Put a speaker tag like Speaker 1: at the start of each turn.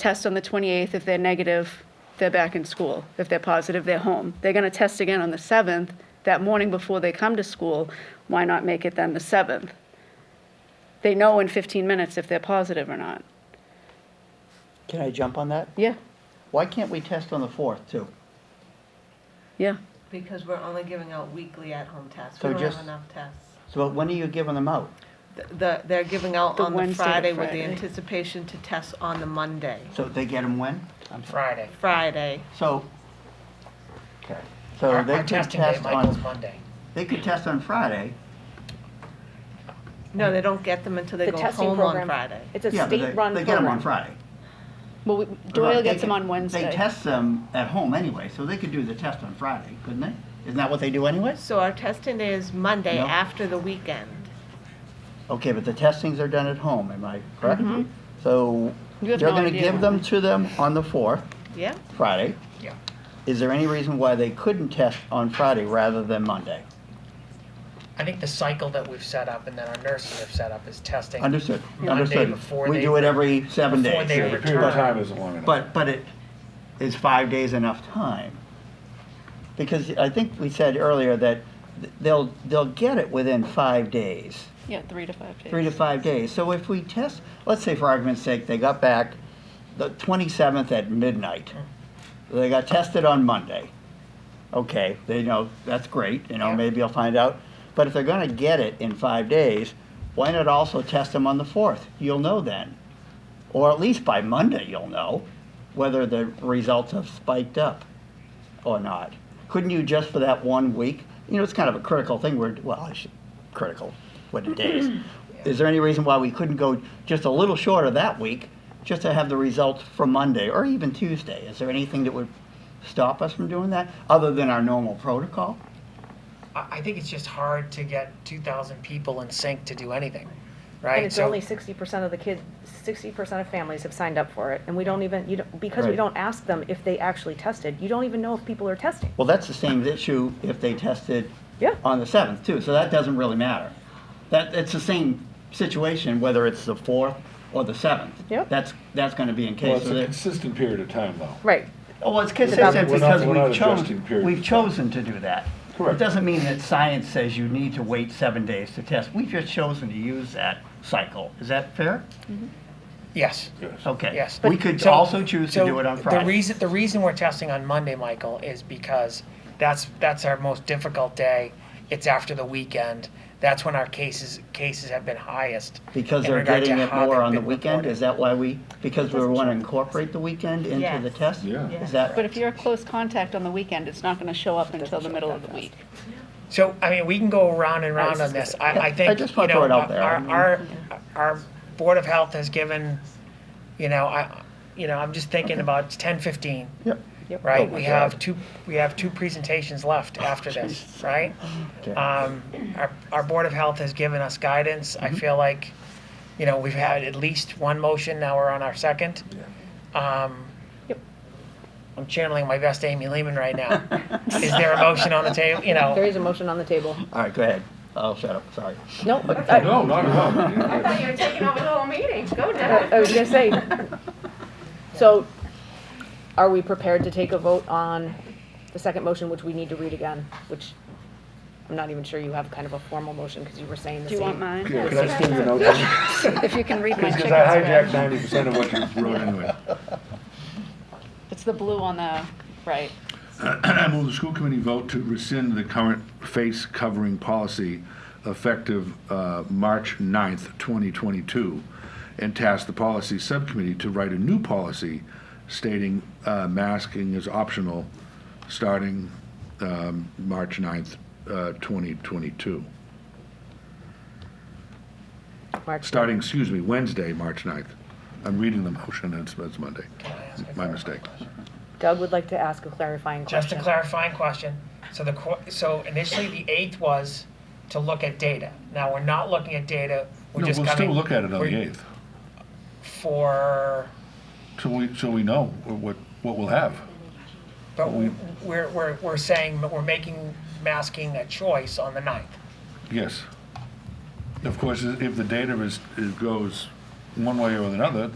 Speaker 1: test on the 28th. If they're negative, they're back in school. If they're positive, they're home. They're going to test again on the 7th, that morning before they come to school. Why not make it then the 7th? They know in 15 minutes if they're positive or not.
Speaker 2: Can I jump on that?
Speaker 1: Yeah,
Speaker 2: Why can't we test on the 4th, too?
Speaker 1: yeah.
Speaker 3: Because we're only giving out weekly at-home tests.
Speaker 2: So
Speaker 3: We don't
Speaker 2: just-
Speaker 3: have enough tests.
Speaker 2: So when are you giving them out?
Speaker 3: Th- The, they're giving out
Speaker 1: The
Speaker 3: on
Speaker 1: Wednesday
Speaker 3: the
Speaker 1: to
Speaker 3: Friday with the
Speaker 1: Friday.
Speaker 3: anticipation to test on the Monday,
Speaker 2: So they get them when? I'm sorry.
Speaker 4: Friday.
Speaker 3: Friday.
Speaker 2: So, okay,
Speaker 4: Our
Speaker 2: so they
Speaker 4: our
Speaker 2: could
Speaker 4: testing day,
Speaker 2: test
Speaker 4: Michael's
Speaker 2: on,
Speaker 4: Monday.
Speaker 2: they could test on Friday.
Speaker 3: No, they don't get them until they
Speaker 5: The
Speaker 3: go
Speaker 5: testing
Speaker 3: home on
Speaker 5: program.
Speaker 3: Friday.
Speaker 5: It's a
Speaker 2: Yeah, but they-
Speaker 5: state-run program.
Speaker 2: They get them on Friday.
Speaker 1: Well, we-
Speaker 2: Right,
Speaker 1: Doyle
Speaker 2: they
Speaker 1: gets them
Speaker 2: could-
Speaker 1: on Wednesday.
Speaker 2: They test them at home anyway, so they could do the test on Friday, couldn't they? Isn't that what they do anyways?
Speaker 3: So our testing day is Monday
Speaker 2: No.
Speaker 3: after the weekend.
Speaker 2: Okay, but the testings are done at home, am I correct? So
Speaker 1: Mm-hmm. You
Speaker 2: you're
Speaker 1: have no
Speaker 2: gonna
Speaker 1: idea.
Speaker 2: give them to them on the 4th,
Speaker 3: Yeah?
Speaker 2: Friday.
Speaker 4: Yeah.
Speaker 2: Is there any reason why they couldn't test on Friday rather than Monday?
Speaker 4: I think the cycle that we've set up and that our nurses have set up is testing.
Speaker 2: Understood,
Speaker 4: Monday
Speaker 2: understood.
Speaker 4: before
Speaker 2: We
Speaker 4: they-
Speaker 2: do it every seven
Speaker 4: before
Speaker 2: days.
Speaker 4: they
Speaker 6: The period
Speaker 4: return.
Speaker 6: of time isn't long enough.
Speaker 2: But, but it, is five days enough time? Because I think we said earlier that th- they'll, they'll get it within five days,
Speaker 1: Yeah, three to five days.
Speaker 2: three to five days. So if we test, let's say for argument's sake, they got back the 27th at midnight. They got tested on Monday. Okay, they know, that's great, you know,
Speaker 4: Yeah.
Speaker 2: maybe I'll find out. But if they're gonna get it in five days, why not also test them on the 4th? You'll know then. Or at least by Monday, you'll know whether the results have spiked up or not. Couldn't you just for that one week? You know, it's kind of a critical thing. We're, well, I should, critical, what it is. Is there any reason why we couldn't go just a little short of that week, just to have the results from Monday or even Tuesday? Is there anything that would stop us from doing that, other than our normal protocol?
Speaker 4: I, I think it's just hard to get two thousand people in sync to do anything, right?
Speaker 5: And it's
Speaker 4: So-
Speaker 5: only sixty percent of the kids, sixty percent of families have signed up for it, and we don't even, you don't, because we
Speaker 2: Right.
Speaker 5: don't ask them if they actually tested, you don't even know if people are testing.
Speaker 2: Well, that's the same issue if they tested
Speaker 5: Yeah.
Speaker 2: on the seventh too, so that doesn't really matter. That, it's the same situation whether it's the fourth or the seventh.
Speaker 5: Yep.
Speaker 2: That's, that's gonna be in
Speaker 6: Well,
Speaker 2: case.
Speaker 6: it's
Speaker 2: so
Speaker 6: a
Speaker 2: that-
Speaker 6: consistent period of time, though.
Speaker 5: Right,
Speaker 2: Oh, well, it's consistent
Speaker 5: about-
Speaker 6: We're not-
Speaker 2: because
Speaker 6: we're not
Speaker 2: we've
Speaker 6: adjusting
Speaker 2: chosen,
Speaker 6: period.
Speaker 2: we've chosen to do that. It
Speaker 6: Correct.
Speaker 2: doesn't mean that science says you need to wait seven days to test. We've just chosen to use that cycle. Is that fair?
Speaker 4: Yes.
Speaker 6: Yes.
Speaker 2: Okay.
Speaker 4: Yes.
Speaker 2: We
Speaker 4: But-
Speaker 2: could
Speaker 4: so-
Speaker 2: also choose to
Speaker 4: so
Speaker 2: do it on
Speaker 4: The
Speaker 2: Friday.
Speaker 4: reason, the reason we're testing on Monday, Michael, is because that's, that's our most difficult day. It's after the weekend. That's when our cases, cases have been highest.
Speaker 2: Because
Speaker 4: in
Speaker 2: they're
Speaker 4: regard to
Speaker 2: getting it
Speaker 4: how
Speaker 2: more
Speaker 4: they've
Speaker 2: on the
Speaker 4: been
Speaker 2: weekend?
Speaker 4: reported.
Speaker 2: Is that why we, because we want to incorporate the weekend into
Speaker 3: Yes.
Speaker 2: the test?
Speaker 6: Yeah.
Speaker 2: Is
Speaker 3: Yes.
Speaker 1: But
Speaker 2: that,
Speaker 1: if you're a close contact on the weekend, it's not going to show up until the middle of the week.
Speaker 4: So, I mean, we can go round and round on this. I, I think,
Speaker 2: just
Speaker 4: you
Speaker 2: wanna throw
Speaker 4: know,
Speaker 2: it out there.
Speaker 4: our, our, our Board of Health has given, you know, I, you know, I'm just thinking about ten fifteen,
Speaker 2: yep.
Speaker 4: right?
Speaker 2: Oh my
Speaker 4: We have
Speaker 2: God. Oh,
Speaker 4: two, we have two presentations left after this, right?
Speaker 2: Okay.
Speaker 4: Um, our, our Board of Health has given us guidance.
Speaker 2: Mm-hmm.
Speaker 4: I feel like, you know, we've had at least one motion, now we're on our second. Um,
Speaker 5: Yep.
Speaker 4: I'm channeling my best Amy Lehman right now. Is there a motion on the table, you know?
Speaker 5: there is a motion on the table.
Speaker 2: All right, go ahead. I'll shut up, sorry.
Speaker 5: No, I,
Speaker 6: No, not at all.
Speaker 7: thought you were taking over the whole meeting. Go, Deb.
Speaker 5: I was gonna say, so are we prepared to take a vote on the second motion, which we need to read again, which I'm not even sure you have kind of a formal motion, because you were saying the
Speaker 1: Do you
Speaker 5: same.
Speaker 1: want mine?
Speaker 6: Yeah, Could I steal your notes?
Speaker 1: If you can read my chicken
Speaker 6: Because I hijacked
Speaker 1: scratch.
Speaker 6: ninety percent of what you wrote anyway.
Speaker 1: It's the blue on the right.
Speaker 6: I move the school committee vote to rescind the current face covering policy effective uh, March 9th, 2022, and task the policy subcommittee to write a new policy stating uh, masking is optional starting um, March 9th, uh, 2022.
Speaker 5: March.
Speaker 6: Starting, excuse me, Wednesday, March 9th. I'm reading the motion, it's it's Monday. My mistake.
Speaker 5: Doug would like to ask a clarifying question.
Speaker 4: Just a clarifying question. So the, qu- so initially the eighth was to look at data. Now, we're not looking at data, we're
Speaker 6: No,
Speaker 4: just
Speaker 6: we'll
Speaker 4: coming.
Speaker 6: still look at it on the
Speaker 4: we're-
Speaker 6: 8th,
Speaker 4: For,
Speaker 6: so we, so we know what, what we'll have.
Speaker 4: but we, we're, we're, we're saying, that we're making masking a choice on the ninth.
Speaker 6: Yes. Of course, i- if the data is, is goes one way or another,